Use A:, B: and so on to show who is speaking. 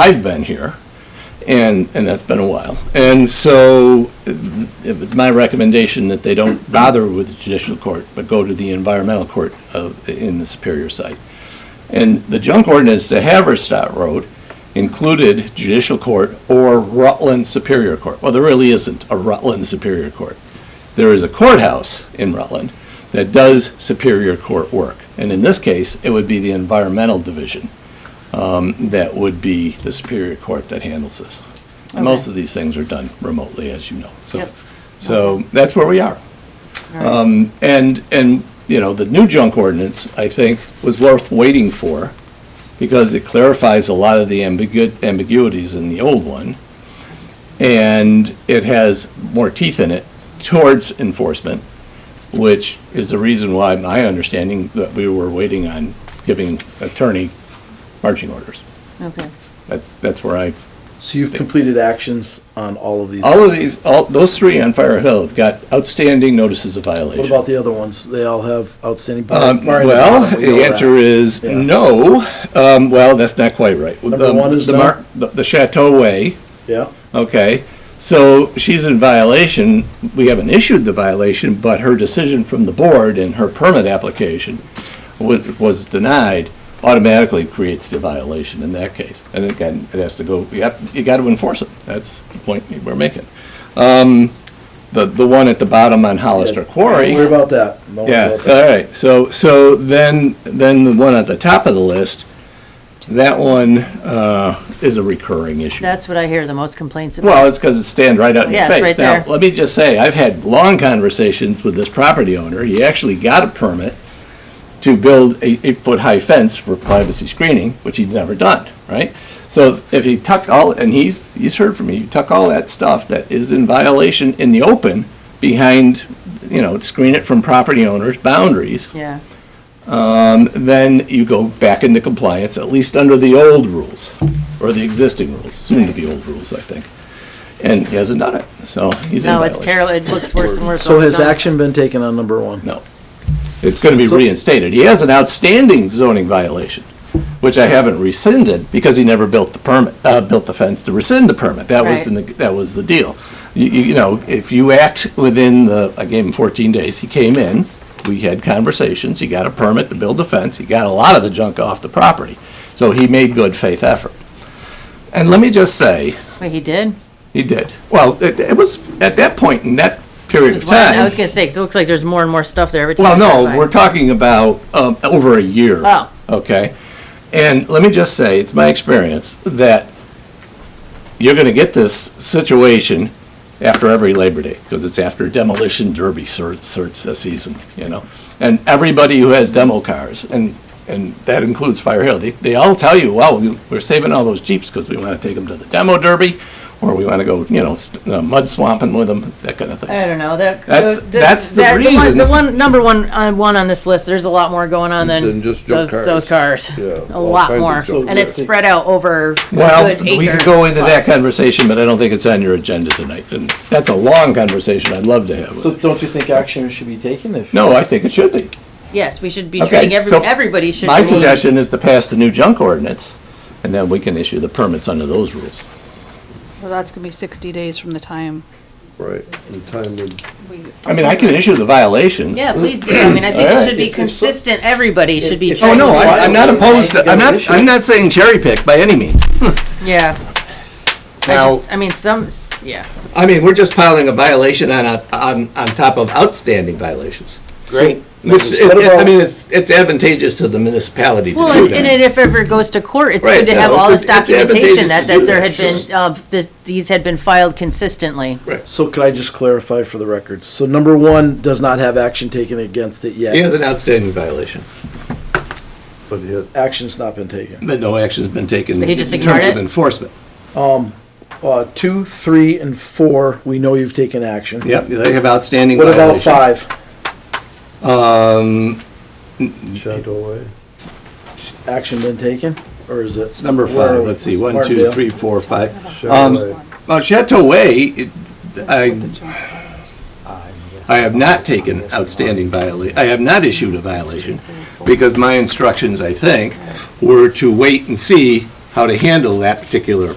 A: I've been here, and, and that's been a while. And so it was my recommendation that they don't bother with the judicial court, but go to the environmental court of, in the Superior site. And the junk ordinance, the Haverstock Road, included judicial court or Rutland Superior Court. Well, there really isn't a Rutland Superior Court. There is a courthouse in Rutland that does Superior Court work. And in this case, it would be the Environmental Division um, that would be the Superior Court that handles this. Most
B: Okay.
A: of these things are done remotely, as you know. So,
B: Yep.
A: so that's where we are. Um,
B: All right.
A: And, and, you know, the new junk ordinance, I think, was worth waiting for because it clarifies a lot of the ambigu- ambiguities in the old one. And it has more teeth in it towards enforcement, which is the reason why my understanding that we were waiting on giving attorney marching orders.
B: Okay,
A: That's, that's where I,
C: So you've completed actions on all of these.
A: all of these, all, those three on Fire Hill have got outstanding notices of
C: What
A: violation.
C: about the other ones? They all have outstanding.
A: Um, Well, the answer is
C: Yeah.
A: no. Um, Well, that's not quite right.
C: Number
A: Um,
C: one is
A: the
C: no?
A: Mar- The the Chateau Way,
C: Yeah,
A: okay, so she's in violation. We haven't issued the violation, but her decision from the board and her permit application wa- was denied automatically creates the violation in that case. And again, it has to go, you have, you got to enforce it. That's the point we're making. Um, The, the one at the bottom on Hollister Quarry.
C: Don't worry about that. Don't worry
A: Yeah, uh,
C: about
A: all
C: that.
A: right, so, so then, then the one at the top of the list, that one, uh, is a recurring issue.
B: that's what I hear the most complaints about.
A: Well, it's because it stands right out in your
B: Yeah,
A: face.
B: it's right there.
A: Now, let me just say, I've had long conversations with this property owner. He actually got a permit to build a eight-foot-high fence for privacy screening, which he'd never done, right? So if he tucked all, and he's, he's heard from me, you tuck all that stuff that is in violation in the open behind, you know, screen it from property owners' boundaries,
B: Yeah,
A: then you go back into compliance, at least under the old rules, or the existing rules, soon to be old rules, I think. And he hasn't done it, so he's in
B: no, it's
A: violation.
B: terrible, it looks worse and worse.
C: So
B: all the
C: has
B: time.
C: action been taken on number one?
A: No. It's gonna be
C: So-
A: reinstated. He has an outstanding zoning violation, which I haven't rescinded because he never built the permit, uh, built the fence to rescind the permit. That was the,
B: Right.
A: neg- that was the deal. You, you you know, if you act within the, I gave him fourteen days, he came in, we had conversations, he got a permit to build the fence, he got a lot of the junk off the property. So he made good faith effort. And let me just say,
B: Wait, he did?
A: he did. Well, it, it was, at that point, in that period of
B: Just wondering-
A: time.
B: I was gonna say, 'cause it looks like there's more and more stuff there every time. I
A: Well,
B: drive by.
A: no, we're talking about um, over a year.
B: Oh.
A: Okay? And let me just say, it's my experience that you're going to get this situation after every Labor Day, because it's after demolition derby search, search this season, you know? And everybody who has demo cars, and, and that includes Fire Hill, they, they all tell you, well, we- we're saving all those Jeeps because we want to take them to the demo derby, or we want to go, you know, s- uh, mud swamping with them, that kind of thing.
B: I don't know, that.
A: That's-
B: uh, this-
A: that's the
B: that- one-
A: reason.
B: The one, number one, uh, one on this list, there's a lot more going on than
D: Than just junk
B: those, those cars.
D: Yeah,
B: A
D: all
B: lot
D: kinds of
B: more,
D: junk
B: and it's
C: cars.
B: spread out over a
A: Well,
B: good acre.
A: we could go into that
B: plus.
A: conversation, but I don't think it's on your agenda tonight, and that's a long conversation I'd love to have. with
C: So
A: you.
C: don't you think action should be taken if?
A: No, I think it should be.
B: Yes, we should be
A: Okay,
B: treating, every-
A: so
B: everybody should be.
A: My suggestion is to pass the new junk ordinance, and then we can issue the permits under those rules.
E: Well, that's gonna be sixty days from the time
D: Right, the time would,
E: we.
A: I mean, I can issue the violations.
B: Yeah, please do, I mean, I think
A: All
B: it
A: right.
B: should be
C: If- if so-
B: consistent, everybody should be.
C: if-
A: Oh, no, I- I'm not
C: Violate,
A: opposed, to- I'm
C: right?
A: not, I'm not saying cherry pick by any means.
B: Yeah. I
A: Now-
B: just, I mean, some, s- yeah.
A: I mean, we're just piling a violation on, a- on, on top of outstanding violations.
C: Great.
A: Which, it-
C: What
A: it- I
C: about-
A: mean, it's, it's advantageous to the municipality to do
B: Well,
A: that.
B: and, and it- if it ever goes to court, it's
A: Right,
B: good to have
A: no,
B: all
A: it's-
B: this
A: it's advantageous
B: documentation
A: to
B: that,
A: do
B: that there
A: that,
B: had been, uh, this, these had been filed consistently.
C: So could I just clarify for the record? So number one does not have action taken against it
A: He
C: yet.
A: has an outstanding violation.
D: but yet,
C: Action's not been taken.
A: But no action's been taken
B: But he
A: in
B: just
A: terms
B: ignored
A: of
B: it?
A: enforcement.
C: Uh, two, three, and four, we know you've taken action.
A: Yep, they have outstanding
C: What about
A: violations. Um,
C: five?
D: Chateau Way,
C: Action been taken, or is it?
A: Number
C: where-
A: five, let's see, one,
C: Smart
A: two,
C: deal.
A: three, four, five. Um,
D: Chateau Way.
A: Well, Chateau Way, it- I, I have not taken outstanding viola, I have not issued a violation, because my instructions, I think, were to wait and see how to handle that particular